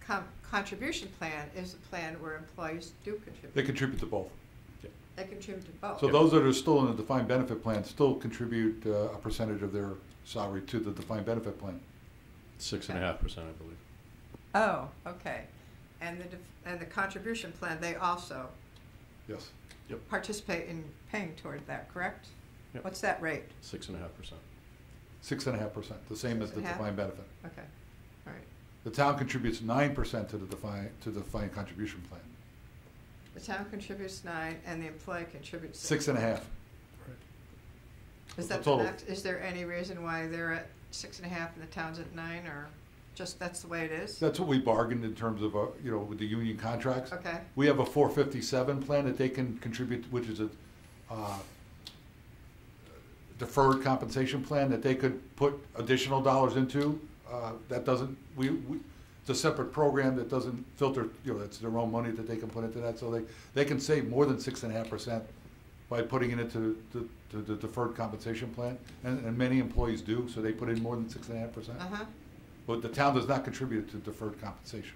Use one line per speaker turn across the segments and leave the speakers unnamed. com- contribution plan is a plan where employees do contribute.
They contribute to both.
They contribute to both.
So those that are still in the defined benefit plan still contribute uh, a percentage of their salary to the defined benefit plan.
Six and a half percent, I believe.
Oh, okay. And the, def- and the contribution plan, they also
Yes.
participate in paying toward that, correct?
Yep.
What's that rate?
Six and a half percent.
Six and a half percent, the same as
Six
the
and a half?
defined benefit.
Okay, all right.
The town contributes nine percent to the defined, to the defined contribution plan.
The town contributes nine and the employee contributes six.
Six and a half.
Is
the
that the
total.
max? Is there any reason why they're at six and a half and the town's at nine or just that's the way it is?
That's what we bargained in terms of, uh, you know, with the union contracts.
Okay,
We have a four fifty-seven plan that they can contribute, which is a uh, deferred compensation plan that they could put additional dollars into. Uh, That doesn't, we, we- it's a separate program that doesn't filter, you know, it's their own money that they can put into that. So they, they can save more than six and a half percent by putting it into the- to the deferred compensation plan. And, and many employees do, so they put in more than six and a half percent.
uh-huh,
But the town does not contribute to deferred compensation.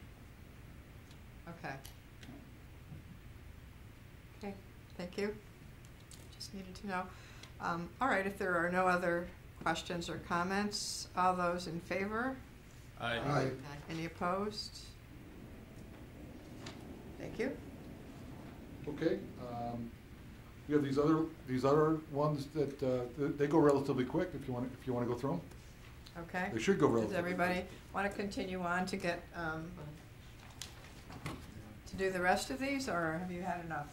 okay. Okay, thank you. Just needed to know. Um, all right, if there are no other questions or comments, all those in favor?
Aye.
Any opposed? Thank you.
Okay, um, we have these other, these other ones that, uh, th- they go relatively quick, if you want, if you want to go through
Okay.
them. They should go
Does
relatively.
everybody want to continue on to get, um, to do the rest of these, or have you had enough?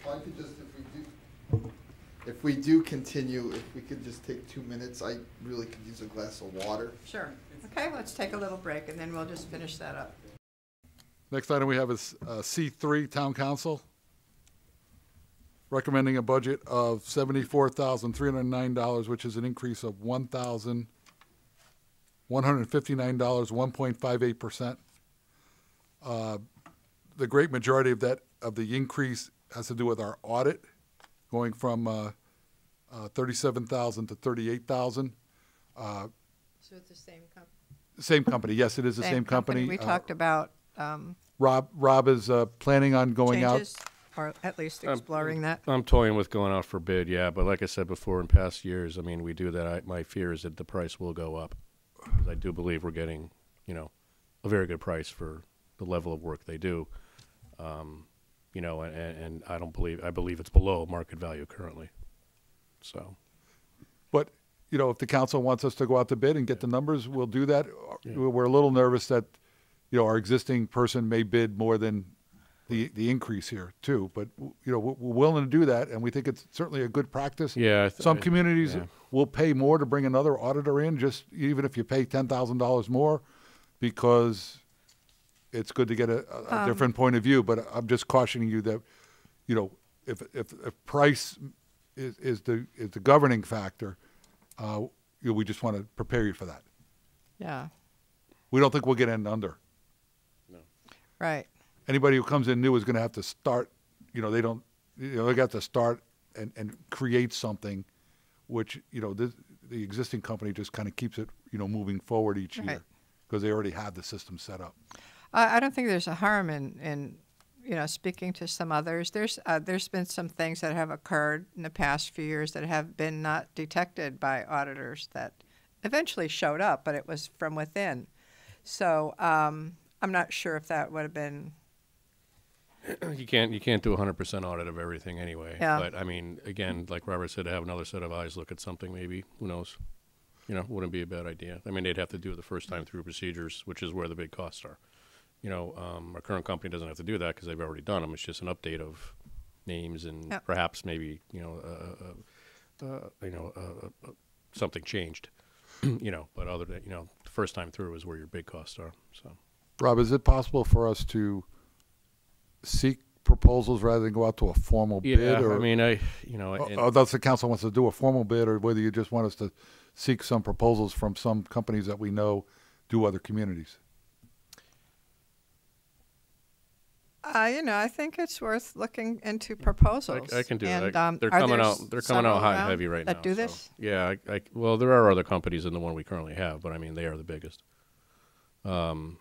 If I could just, if we do, if we do continue, if we could just take two minutes, I really could use a glass of water.
Sure. Okay, let's take a little break, and then we'll just finish that up.
Next item we have is uh, C three, Town Council. Recommending a budget of seventy-four thousand, three hundred and nine dollars, which is an increase of one thousand, one hundred and fifty-nine dollars, one point five eight percent. Uh, The great majority of that, of the increase has to do with our audit, going from, uh, uh, thirty-seven thousand to thirty-eight thousand.
So it's the same company?
Same company, yes, it is the same company.
We
Uh,
talked about um,
Rob, Rob is, uh, planning on going out.
changes, or at least
Um,
exploring that.
I'm toying with going out for bid, yeah, but like I said before, in past years, I mean, we do that. I, my fear is that the price will go up. 'Cause I do believe we're getting, you know, a very good price for the level of work they do. Um, you know, and, and, and I don't believe, I believe it's below market value currently. So,
But, you know, if the council wants us to go out to bid and get the numbers, we'll do that.
Yeah.
We're a little nervous that, you know, our existing person may bid more than the, the increase here too. But, you know, we're we're willing to do that and we think it's certainly a good practice.
yeah. I th-
Some
I-
communities
yeah.
will pay more to bring another auditor in, just even if you pay ten thousand dollars more, because it's good to get a, a a different point of view. But I'm just cautioning you that, you know, if if, if price is, is the is the governing factor, uh, you know, we just want to prepare you for that.
Yeah,
We don't think we'll get in under.
right.
Anybody who comes in new is going to have to start. You know, they don't. You know, they got to start and and create something, which you know this, the existing company just kind of keeps it you know moving forward each
Right.
year because they already have the system set up.
I, I don't think there's a harm in, in you know speaking to some others. There's uh, there's been some things that have occurred in the past few years that have been not detected by auditors that eventually showed up, but it was from within. So um, I'm not sure if that would have been
you can't you can't do a hundred percent audit of everything anyway.
Yeah.
But I mean, again, like Robert said, to have another set of eyes look at something, maybe who knows? You know, wouldn't be a bad idea. I mean, they'd have to do it the first time through procedures, which is where the big costs are. You know, um, our current company doesn't have to do that because they've already done them. It's just an update of names and
Yep.
perhaps maybe you know, uh, uh, uh, you know, uh, uh, uh, something changed. you know, but other than you know, the first time through is where your big costs are. So.
Rob, is it possible for us to seek proposals rather than go out to a formal
Yeah,
bid? Or,
I mean, I you know,
oh,
and-
oh, that's the council wants to do a formal bid, or whether you just want us to seek some proposals from some companies that we know do other communities.
Uh, you know, I think it's worth looking into proposals.
I, I can do
and,
that.
Um,
they're
are
coming
there
out. They're coming
several
out hot and
around
heavy right
that
now.
Do
so-
this?
Yeah. I, I, well, there are other companies than the one we currently have, but I mean, they are the biggest. Um,